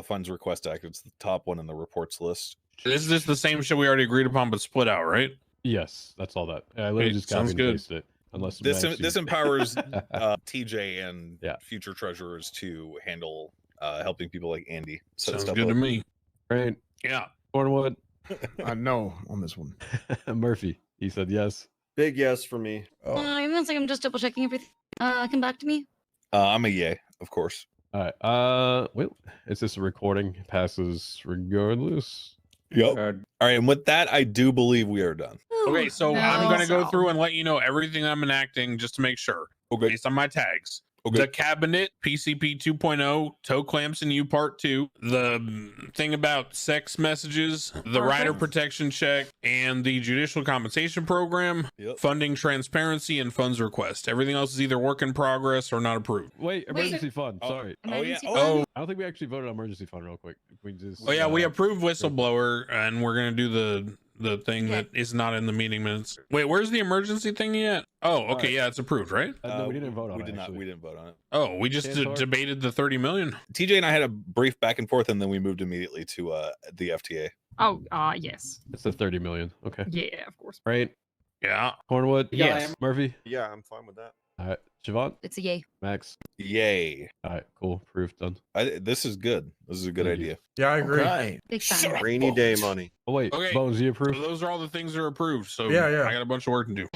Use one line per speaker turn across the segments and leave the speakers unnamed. the funds request act. It's the top one in the reports list.
Is this the same shit we already agreed upon, but split out, right?
Yes, that's all that. I literally
Hey,
just copied
sounds
and
good.
pasted it. Unless
This
Max, you-
this empowers uh, TJ and
Yeah.
future treasurers to handle uh, helping people like Andy. set
Sounds
stuff
good to
up.
me.
right,
Yeah.
Cornwood
I know on this one.
Murphy. He said yes.
Big yes for me. Oh,
Uh, one second, I'm just double checking everything. Uh, come back to me.
Uh, I'm a yay, of course.
All right. Uh, wait. Is this a recording? Passes regardless.
Yep.
Uh,
All right, and with that, I do believe we are done.
Okay,
Ooh,
so
no.
I'm gonna go
So-
through and let you know everything I'm enacting just to make sure,
Okay.
based on my tags.
Okay.
The cabinet, PCP 2.0, oh, toe clamps and you part two, the mm, thing about sex messages, the rider
Perfect.
protection check, and the judicial compensation program,
Yep.
funding transparency, and funds request. Everything else is either work in progress or not approved.
Wait, emergency fund.
Oh.
Sorry,
Emergency
Oh,
fund?
Oh,
I don't think we actually voted on emergency fund. Real quick, we just.
oh yeah, we
uh,
approved whistleblower, and we're gonna do the the thing
Yeah.
that is not in the meeting minutes. Wait, where's the emergency thing yet? Oh, okay,
right.
yeah, it's approved, right?
uh, no,
Uh,
we didn't vote on
We
it.
did not.
actually.
We didn't vote on it.
Oh, we just
Chances
d-
are-
debated the 30 million.
TJ and I had a brief back and forth, and then we moved immediately to uh, the FTA.
Oh, uh, yes.
It's the thirty million. Okay.
Yeah, of course.
Right.
Yeah.
Cornwood.
Yeah, I
Yes.
am-
Murphy.
yeah, I'm fine with that.
All right. Siobhan.
It's a yay.
Max.
Yay!
All right. Cool. Proof done.
I, this is good. This is a good
Thank you.
idea.
Yeah, I agree.
Big fan.
Sure.
Rainy day money.
Oh wait,
Okay.
Bones, you approve?
Those are all the things that are approved. So
Yeah, yeah.
I got a bunch of work to do.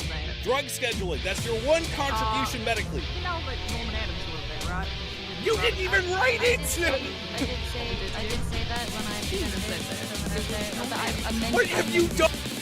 Drug scheduling. That's your one
contribution
medically.
You know that Norman Adams wrote that, right?
You didn't even write
I
it!
did say, I did say, I did say that when I
Jesus,
presented
that's
it, but I- I meant
done?